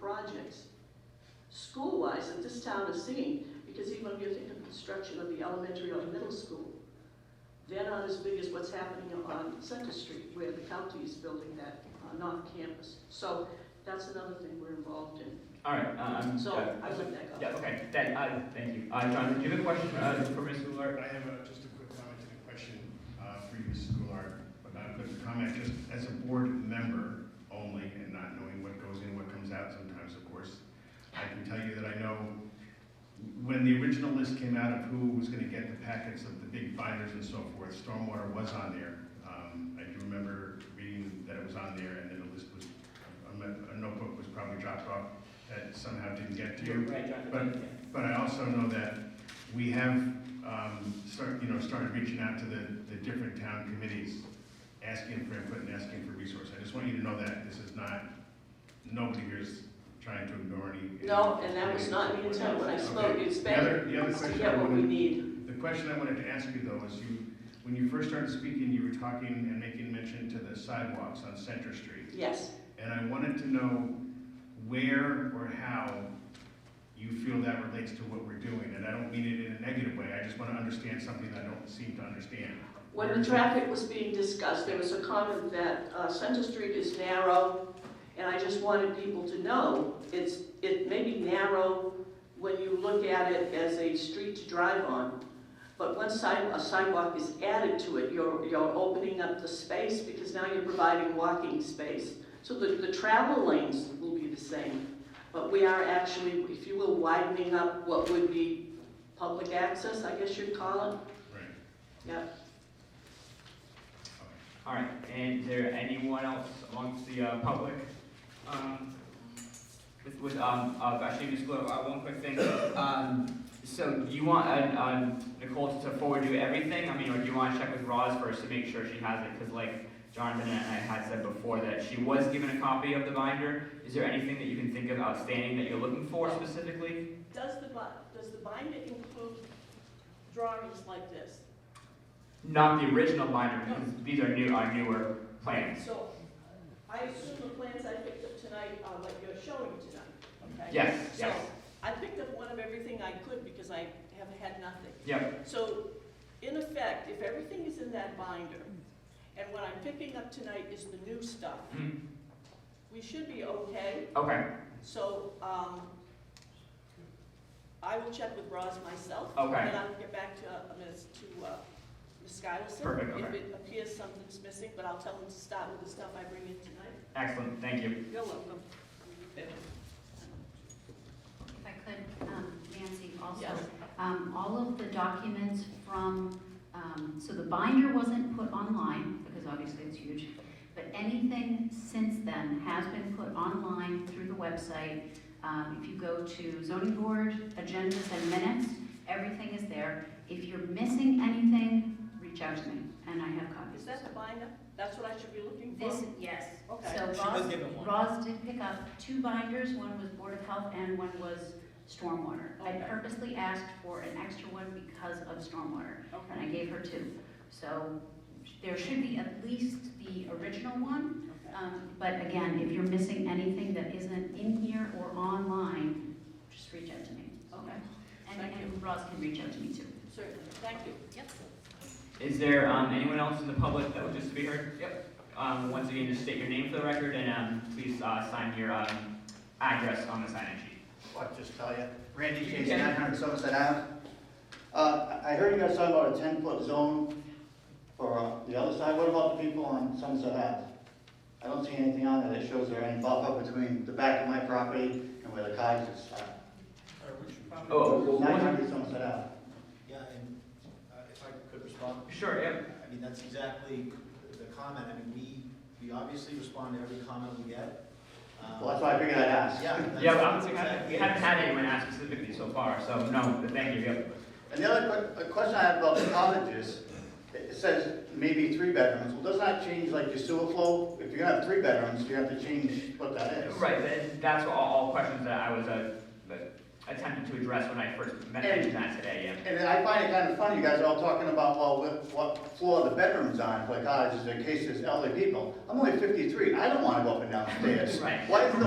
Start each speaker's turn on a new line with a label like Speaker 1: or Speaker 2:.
Speaker 1: projects, school-wise, that this town is seeing, because even when you think of construction of the elementary or middle school, they're not as big as what's happening on Center Street, where the county is building that on off campus. So that's another thing we're involved in.
Speaker 2: All right, uh, I'm,
Speaker 1: So
Speaker 2: yeah,
Speaker 1: I would back up.
Speaker 2: Yeah, okay, thank, uh, thank you. Uh, John, do you have a question, uh, for Ms. Goulart?
Speaker 3: I have a- just a quick comment and a question uh, for you, Mrs. Goulart, but not a quick comment, just as a board member only and not knowing what goes in, what comes out sometimes, of course. I can tell you that I know when the original list came out of who was going to get the packets of the big binders and so forth, stormwater was on there. Um, I do remember reading that it was on there and then a list was, a a notebook was probably dropped off that somehow didn't get to you.
Speaker 2: Right,
Speaker 3: But, but I also know that we have, um, start, you know, started reaching out to the, the different town committees, asking for input and asking for resources. I just want you to know that this is not, nobody here is trying to ignore any.
Speaker 1: No, and that was not the intent when I spoke,
Speaker 3: Okay.
Speaker 1: it's
Speaker 3: The other,
Speaker 1: better
Speaker 3: the other
Speaker 1: to
Speaker 3: question
Speaker 1: get
Speaker 3: I
Speaker 1: what we
Speaker 3: wanted,
Speaker 1: need.
Speaker 3: the question I wanted to ask you though is you, when you first started speaking, you were talking and making mention to the sidewalks on Center Street.
Speaker 1: Yes,
Speaker 3: And I wanted to know where or how you feel that relates to what we're doing. And I don't mean it in a negative way, I just want to understand something I don't seem to understand.
Speaker 1: when the traffic was being discussed, there was a comment that uh, Center Street is narrow, and I just wanted people to know, it's, it may be narrow when you look at it as a street to drive on, but once side- a sidewalk is added to it, you're, you're opening up the space, because now you're providing walking space. So the, the travel lanes will be the same, but we are actually, if you will, widening up what would be public access, I guess you'd call it,
Speaker 3: Right.
Speaker 1: yeah.
Speaker 2: All right, and is there anyone else amongst the, uh, public? Um, With, with, um, uh, actually, Ms. Goulart, uh, one quick thing. Um, so do you want, uh, um, Nicole to forward you everything? I mean, or do you want to check with Roz first to make sure she has it? Because like Jonathan and I had said before, that she was given a copy of the binder. Is there anything that you can think of outstanding that you're looking for specifically?
Speaker 4: Does the, bi- does the binder include drawings like this?
Speaker 2: Not the original binder, because these are new, are newer plans.
Speaker 4: So I assume the plans I picked up tonight are what you're showing tonight, okay?
Speaker 2: Yes,
Speaker 4: So
Speaker 2: yes.
Speaker 4: I picked up one of everything I could because I have had nothing.
Speaker 2: Yep,
Speaker 4: So in effect, if everything is in that binder, and what I'm picking up tonight is the new stuff,
Speaker 2: Mm.
Speaker 4: we should be okay.
Speaker 2: okay,
Speaker 4: So um, I will check with Roz myself.
Speaker 2: Okay.
Speaker 4: And I'll get back to, uh, Ms. to uh, Ms. Skilson.
Speaker 2: Perfect,
Speaker 4: If
Speaker 2: okay.
Speaker 4: it appears something's missing, but I'll tell them to start with the stuff I bring in tonight.
Speaker 2: excellent, thank you.
Speaker 4: You're welcome.
Speaker 5: If I could, um, Nancy, also,
Speaker 4: Yes.
Speaker 5: um, all of the documents from, um, so the binder wasn't put online, because obviously it's huge, but anything since then has been put online through the website. Um, If you go to zoning board, agendas and minutes, everything is there. If you're missing anything, reach out to me, and I have copies.
Speaker 4: Is that the binder? That's what I should be looking for?
Speaker 5: This, yes.
Speaker 4: Okay.
Speaker 5: So
Speaker 6: She was
Speaker 5: Ross,
Speaker 6: given one.
Speaker 5: Ross did pick up two binders, one was Board of Health and one was Stormwater. I
Speaker 4: Okay.
Speaker 5: purposely asked for an extra one because of Stormwater, and I
Speaker 4: Okay.
Speaker 5: gave her two. So there should be at least the original one,
Speaker 4: Okay.
Speaker 5: um, but again, if you're missing anything that isn't in here or online, just reach out to me.
Speaker 4: Okay.
Speaker 5: And,
Speaker 4: Thank
Speaker 5: and Ross can reach out to me too.
Speaker 4: Certainly. Thank you.
Speaker 5: Yep.
Speaker 2: Is there, um, anyone else in the public that would just be heard? Yep. Um, once again, just state your name for the record and, um, please, uh, sign your, um, address on the sign-in sheet.
Speaker 7: I'll just tell you, Randy Chase,
Speaker 2: Yeah.
Speaker 7: 900 Somerset Ave. Uh, I I heard you guys talking about a 10-foot zone for uh, the other side, what about the people on Somerset Ave? I don't see anything on there that shows there any buffer between the back of my property and where the cars are stopped.
Speaker 2: Oh, well, one-
Speaker 7: 900 Somerset Ave.
Speaker 6: Yeah, and uh, if I could respond,
Speaker 2: sure, yep,
Speaker 6: I mean, that's exactly the comment. I mean, we, we obviously respond to every comment we get. Um,
Speaker 7: Well, that's why I figured I'd ask.
Speaker 6: Yeah. that's-
Speaker 2: yep, I'm,
Speaker 6: that's
Speaker 2: we haven't
Speaker 6: exactly
Speaker 2: we
Speaker 6: it.
Speaker 2: haven't had anyone ask specifically so far, so, no, but thank you, yep.
Speaker 7: And the other que- a question I have about the cottages, it says maybe three bedrooms, well, doesn't that change like your sewer flow? If you're gonna have three bedrooms, you have to change what that is.
Speaker 2: Right, that, that's all, all questions that I was, uh, attempting to address when I first met you guys today, yeah.
Speaker 7: And then I find it kind of funny, you guys are all talking about, well, what, what floor the bedroom's on, like, ah, just in case there's elderly people. I'm only fifty-three, I don't wanna go up and down stairs.
Speaker 2: Right.
Speaker 7: Why is the